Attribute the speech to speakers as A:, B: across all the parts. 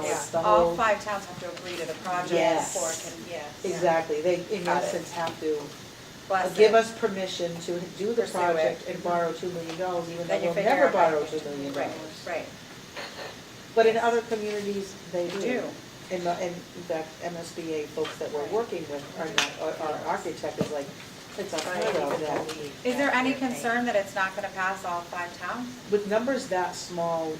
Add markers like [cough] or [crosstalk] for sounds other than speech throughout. A: the
B: All
A: whole,
B: five towns have to agree to the project
A: Yes.
B: before it can, yes.
A: exactly, they in
B: Got it.
A: essence have to
B: Bless
A: give
B: it.
A: us permission to do the
B: Pursue
A: project
B: it.
A: and borrow two million dollars, even though
B: Then you
A: we'll
B: figure
A: never
B: out how to
A: borrow
B: do
A: two
B: it.
A: million dollars.
B: Right, right.
A: But in other communities, they do.
B: Do.
A: And, the- and in fact, MSBA folks that we're working with are not, our architect is like, it's unheard of that.
B: Is there any concern that it's not gonna pass all five towns?
A: With numbers that small,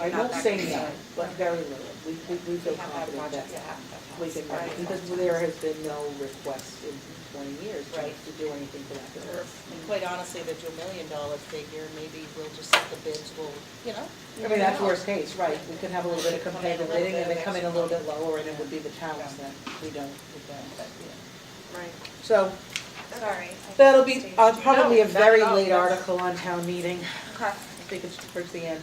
A: I won't
B: Not that
A: say no,
B: concerned.
A: but very little. We, we, we feel
B: We have had
A: confident
B: projects
A: that
B: that happen at
A: we
B: once.
A: can,
B: Right.
A: because there has been no request in twenty years to
C: Right.
A: to do anything for that building.
C: And quite honestly, the two million dollar figure, maybe we'll just, the bids will, you know?
A: I mean, that's
C: Yeah.
A: worst case, right, we could have a little bit of
C: Come in a
A: competitive
C: little
A: bidding, and
C: bit
A: they come in a little bit
C: extra.
A: lower, and it would be the towns that we don't, we don't, but, yeah.
B: Right.
A: So,
B: Sorry.
A: that'll be, uh, probably a
B: No, not
A: very
B: at all.
A: late article on town meeting,
B: Okay.
A: I think it's towards the end.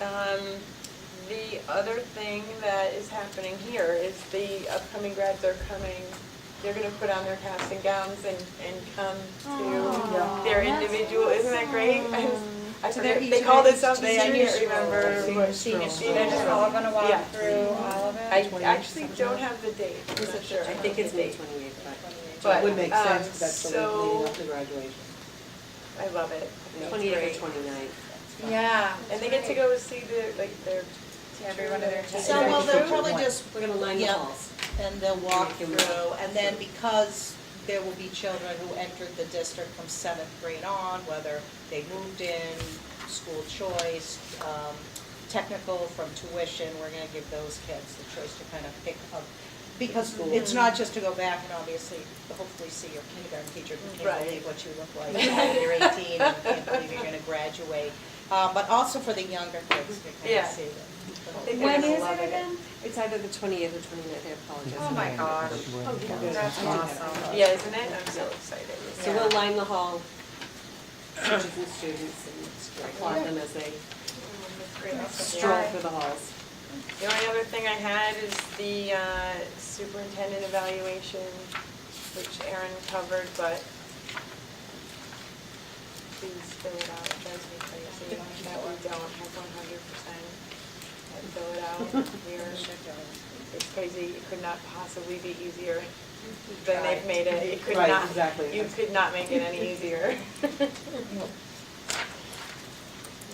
D: Um, the other thing that is happening here is the upcoming grads are coming, they're gonna put on their caps and gowns and, and come
A: Aw,
D: to their individual, isn't that great? I
B: So they're
D: forget,
B: each
D: they called
B: of
D: it
B: each
D: something, I
B: teachers?
D: can't remember.
A: Senior stroll.
B: So they're just all gonna
D: Yeah.
B: walk through all of it?
D: I
A: Twenty-eighth,
D: actually
A: something
D: don't
A: like that?
D: have the date, I'm not sure.
E: I think it's May twenty-eighth,
A: So
D: But,
A: it would make
D: um,
A: sense, 'cause that's the week leading up
D: so-
A: to graduation.
D: I love it.
E: but
D: It's great.
E: twenty-eighth or twenty-ninth.
B: Yeah.
D: And they get to go see the, like, their.
B: To every one of their teachers.
C: So, well, they'll probably
E: Right.
C: just,
E: We're gonna line the
C: Yeah.
E: halls.
C: and they'll walk through, and then because there will be children who entered the district from seventh grade on, whether they moved in, school choice, um, technical from tuition, we're gonna give those kids the choice to kind of pick up. Because
A: School.
C: it's not just to go back and obviously, hopefully see your kindergarten teacher who can't
D: Right.
C: believe what you look like when you're eighteen and can't believe you're gonna graduate. Uh, but also for the younger kids to kind of
D: Yeah.
C: see them.
D: They
B: When
D: kinda
B: is
D: love
B: it again?
E: It's either the twenty-eighth or twenty-ninth, I apologize.
B: Oh my gosh. That's awesome.
D: Yeah, isn't it? I'm so excited.
E: So we'll line the hall, teachers and students, and applaud them as they
D: That's great.
E: stroll through the halls.
D: The only other thing I had is the uh, superintendent evaluation, which Erin covered, but please fill it out, it drives me crazy that we don't have one hundred percent fill it out. We're- It's crazy, it could not possibly be easier than they've made it, it could
A: Right,
D: not,
A: exactly.
D: you could not make it any easier.
A: [laughs]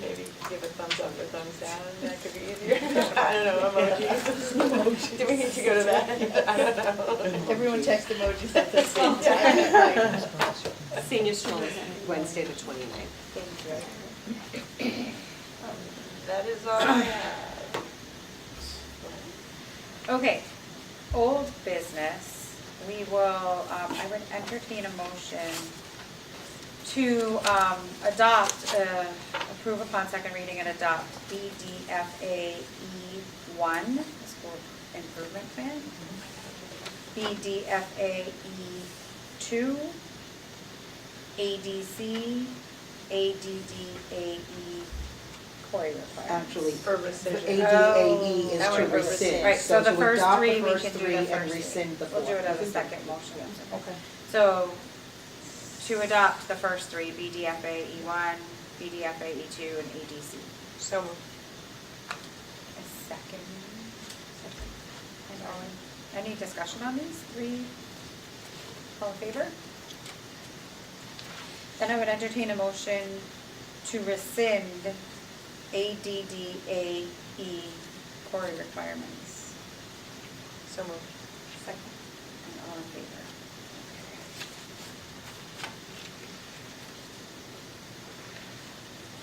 D: Maybe give a thumbs up or thumbs down, that could be easier, [laughs] I don't know, emojis.
A: [laughs]
D: Do we need to go to that? [laughs] I don't know.
B: Everyone text emojis at the [laughs] same
E: Senior stroll is Wednesday, the twenty-ninth.
D: That is all I have.
B: Okay, old business, we will, um, I would entertain a motion to, um, adopt, uh, approve upon second reading and adopt BDFA E one, the school improvement plan. BDFA E two, ADC, ADDAE, E, Cory requires.
A: Actually,
D: For rescission.
A: ADAE
B: Oh,
A: E
B: That
A: is
B: would
A: to
B: be
A: rescind.
B: Right, so the
A: to
B: first
A: adopt
B: three, we
A: first
B: can do
A: three
B: the
A: and
B: first three.
A: rescind the
B: We'll do it
A: fourth.
B: as a second motion. Okay. So, to adopt the first three, BDFA E1, BDFA E2, E and ADC.
D: So moved.
B: A second. And all in- any discussion on these three? All in favor? Then I would entertain a motion to rescind ADDAE Corey E requirements.
D: So moved.
B: Second. And all in favor?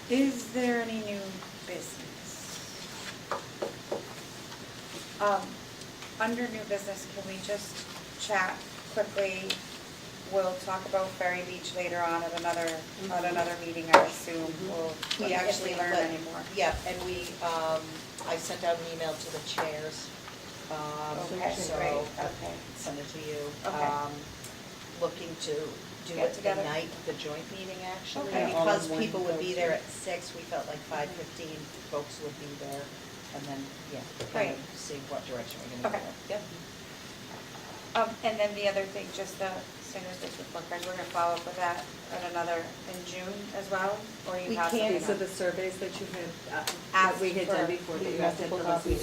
B: Is there any new business? Um, under new business, can we just chat quickly? We'll talk about Ferry Beach later on at another, at another meeting, I assume, we'll,
C: We actually,
B: actually learn
C: but-
B: anymore.
C: yeah, and we, um, I sent out an email to the chairs, um,
B: Oh, Okay,
C: so
B: great,
C: I'll
B: okay.
C: send it to you.
B: Okay.
C: Um, Looking to do it
B: Get
C: the
B: together.
C: night, the joint meeting actually,
B: Okay.
A: Yeah, all in
C: because
A: one
C: people would be
A: go-to.
C: there at six, we felt like five fifteen, folks would be there, and then, yeah, kind
B: Great.
C: of see what direction we're gonna go.
B: Okay.
C: Yep.
B: Um, and then the other thing, just the Sanders District Book Cards, we're gonna follow up with that at another, in June as well, or you
C: We
B: have something
C: can,
B: else?
E: These are the surveys that you had, uh,
B: Asked
E: that we had
B: for-
E: done before, that
A: we
E: you
A: have
E: asked at the
A: multiple copies.
E: last meeting.